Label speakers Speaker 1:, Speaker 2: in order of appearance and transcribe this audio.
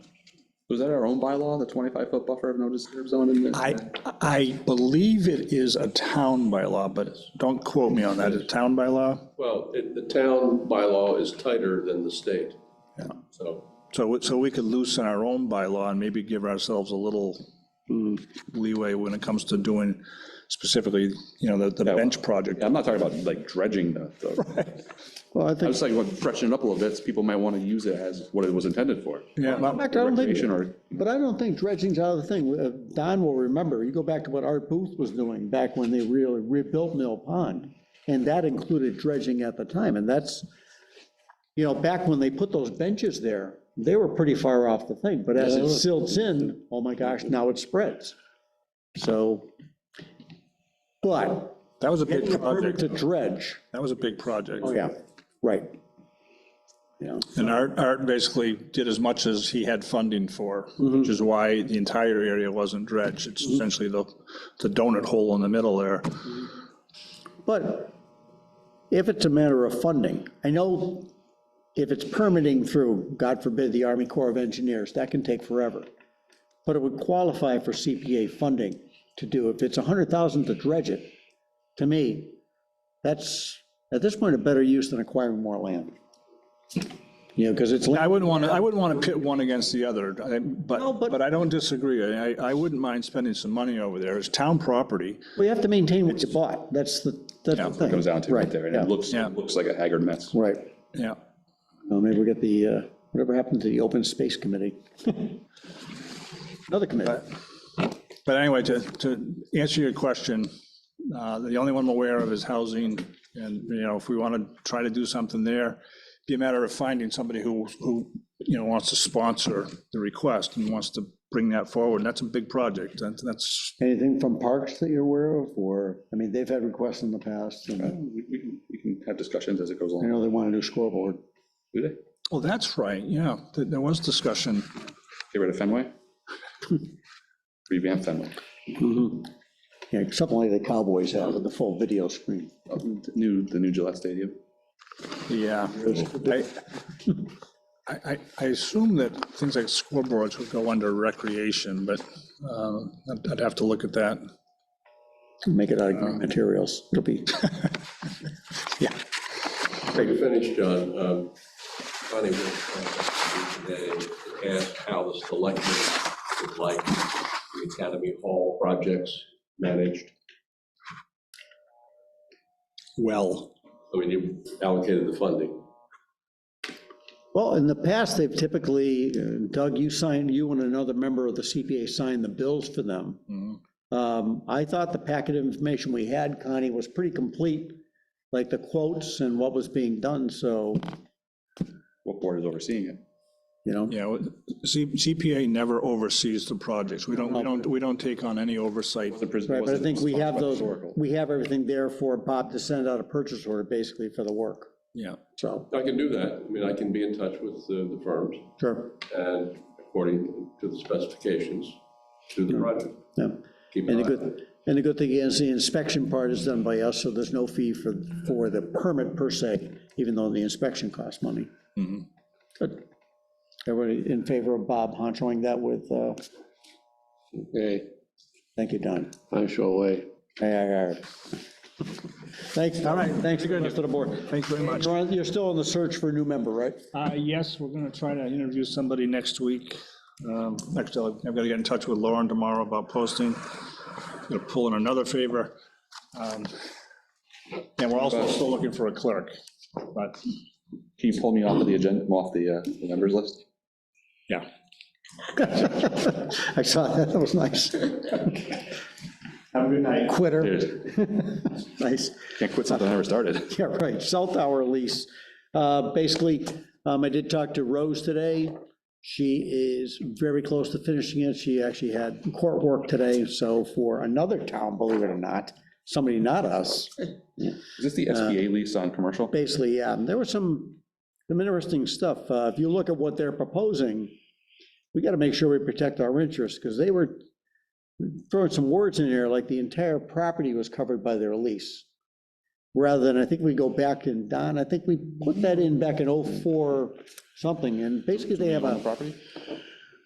Speaker 1: Was that our own bylaw, the 25-foot buffer of no disturb zone in this?
Speaker 2: I, I believe it is a town bylaw, but don't quote me on that, it's a town bylaw.
Speaker 3: Well, it- the town bylaw is tighter than the state. So,
Speaker 2: So, we- so we could loosen our own bylaw and maybe give ourselves a little leeway when it comes to doing specifically, you know, the, the bench project.
Speaker 1: Yeah, I'm not talking about like dredging the, the-
Speaker 4: Well, I
Speaker 1: I
Speaker 4: think,
Speaker 1: was like, well, freshen it up a little bit, so people might want to use it as what it was intended for.
Speaker 2: Yeah,
Speaker 4: In fact, I don't
Speaker 1: Recreation
Speaker 4: think,
Speaker 1: or,
Speaker 4: but I don't think dredging's out of the thing. Uh, Don will remember, you go back to what Art Booth was doing back when they really rebuilt Mill Pond. And that included dredging at the time, and that's, you know, back when they put those benches there, they were pretty far off the thing, but as it silts in, oh my gosh, now it spreads. So, but
Speaker 2: that was a big
Speaker 4: getting a permit
Speaker 2: project,
Speaker 4: to dredge, Oh,
Speaker 2: that was a big project.
Speaker 4: yeah, right. Yeah.
Speaker 2: And Art, Art basically did as much as he had funding for,
Speaker 1: Mm-hmm.
Speaker 2: which is why the entire area wasn't dredged. It's essentially the, the donut hole in the middle there.
Speaker 4: But if it's a matter of funding, I know if it's permitting through, God forbid, the Army Corps of Engineers, that can take forever. But it would qualify for CPA funding to do, if it's 100,000 to dredge it, to me, that's, at this point, a better use than acquiring more land. You know, because it's,
Speaker 2: I
Speaker 4: land-
Speaker 2: wouldn't want to, I wouldn't want to pit one against the other, I- but,
Speaker 4: No, but-
Speaker 2: but I don't disagree. I, I wouldn't mind spending some money over there. It's town property.
Speaker 4: we have to maintain what you bought, that's the, that's
Speaker 2: Yeah,
Speaker 4: the
Speaker 2: it
Speaker 4: thing.
Speaker 1: goes down to right there, and
Speaker 4: yeah.
Speaker 1: it looks,
Speaker 2: Yeah.
Speaker 1: it looks like a haggard mess.
Speaker 4: Right.
Speaker 2: Yeah.
Speaker 4: Well, maybe we'll get the, uh, whatever happened to the Open Space Committee? Another committee.
Speaker 2: But anyway, to, to answer your question, uh, the only one I'm aware of is housing. And, you know, if we want to try to do something there, be a matter of finding somebody who, who, you know, wants to sponsor the request and wants to bring that forward. And that's a big project. And that's,
Speaker 4: Anything from parks that you're aware of, or, I mean, they've had requests in the past, and
Speaker 1: We we can, we can have discussions as it goes
Speaker 4: I
Speaker 1: along.
Speaker 4: know they want a new scoreboard.
Speaker 1: Do they?
Speaker 2: oh, that's right. Yeah, There- there was discussion.
Speaker 1: Get rid of Fenway? Revamp Fenway.
Speaker 4: Yeah, something like the Cowboys have with the full video screen.
Speaker 1: Uh, the New, the new Gillette Stadium.
Speaker 2: Yeah. I, I, I assume that things like scoreboards would go under recreation, but uh, I'd- I'd have to look at that.
Speaker 4: Make it out of green materials. It'll be,
Speaker 2: Yeah.
Speaker 3: to finish, John, um, Bonnie will contact you today and ask how the selectmen would like the Academy Hall projects managed.
Speaker 2: Well.
Speaker 3: I mean, you allocated the funding.
Speaker 4: well, in the past, they've typically, uh, Doug, you signed, you and another member of the CPA signed the bills for them.
Speaker 1: Mm-hmm.
Speaker 4: Um, I thought the packet of information we had, Connie, was pretty complete, like the quotes and what was being done, so,
Speaker 1: What board is overseeing it?
Speaker 4: you know.
Speaker 2: Yeah, well, C- CPA never oversees the projects. We don't, we don't, we don't take on any oversight.
Speaker 1: The prison-
Speaker 4: Right, but I
Speaker 1: wasn't
Speaker 4: think we have
Speaker 1: sponsored by
Speaker 4: those,
Speaker 1: Oracle.
Speaker 4: we have everything there for Bob to send out a purchase order basically for the work,
Speaker 2: Yeah.
Speaker 4: so.
Speaker 3: I can do that. I mean, I can be in touch with the the firms
Speaker 4: Sure.
Speaker 3: and according to the specifications to the project.
Speaker 4: Yeah,
Speaker 3: Keep
Speaker 4: and
Speaker 3: an
Speaker 4: the
Speaker 3: eye on it.
Speaker 4: good, and the good thing is the inspection part is done by us, so there's no fee for, for the permit per se, even though the inspection costs money.
Speaker 2: Mm-hmm.
Speaker 4: Good. Everybody in favor of Bob honchoing that with, uh,
Speaker 5: Okay,
Speaker 4: thank you, Don.
Speaker 5: I shall wait.
Speaker 4: Aye, aye, aye. Thanks, all right, thanks again to the board.
Speaker 2: Thanks very much.
Speaker 4: You're on- You're still on the search for a new member, right?
Speaker 2: Uh, Yes, we're going to try to interview somebody next week. Um, Actually, I've got to get in touch with Lauren tomorrow about posting. Going to pull in another favor. Um, And we're also still looking for a clerk, but,
Speaker 1: Can you pull me off of the agenda, off the, uh, the members list?
Speaker 2: yeah.
Speaker 4: I saw that, that was nice.
Speaker 2: Have a good night.
Speaker 4: Quitter,
Speaker 1: Dude,
Speaker 4: nice.
Speaker 1: Can't quit something I never started.
Speaker 4: Yeah, right, cell tower lease. Uh, Basically, um, I did talk to Rose today. She is very close to finishing it. She actually had court work today, so for another town, believe it or not, somebody not us.
Speaker 1: Is this the SBA lease on commercial?
Speaker 4: Basically, yeah, and there was some, some interesting stuff. Uh, If you look at what they're proposing, we got to make sure we protect our interests, because they were throwing some words in there, like the entire property was covered by their lease. Rather than, I think we go back and, Don, oh I think we put that in back in '04 something, and basically they have a. Property?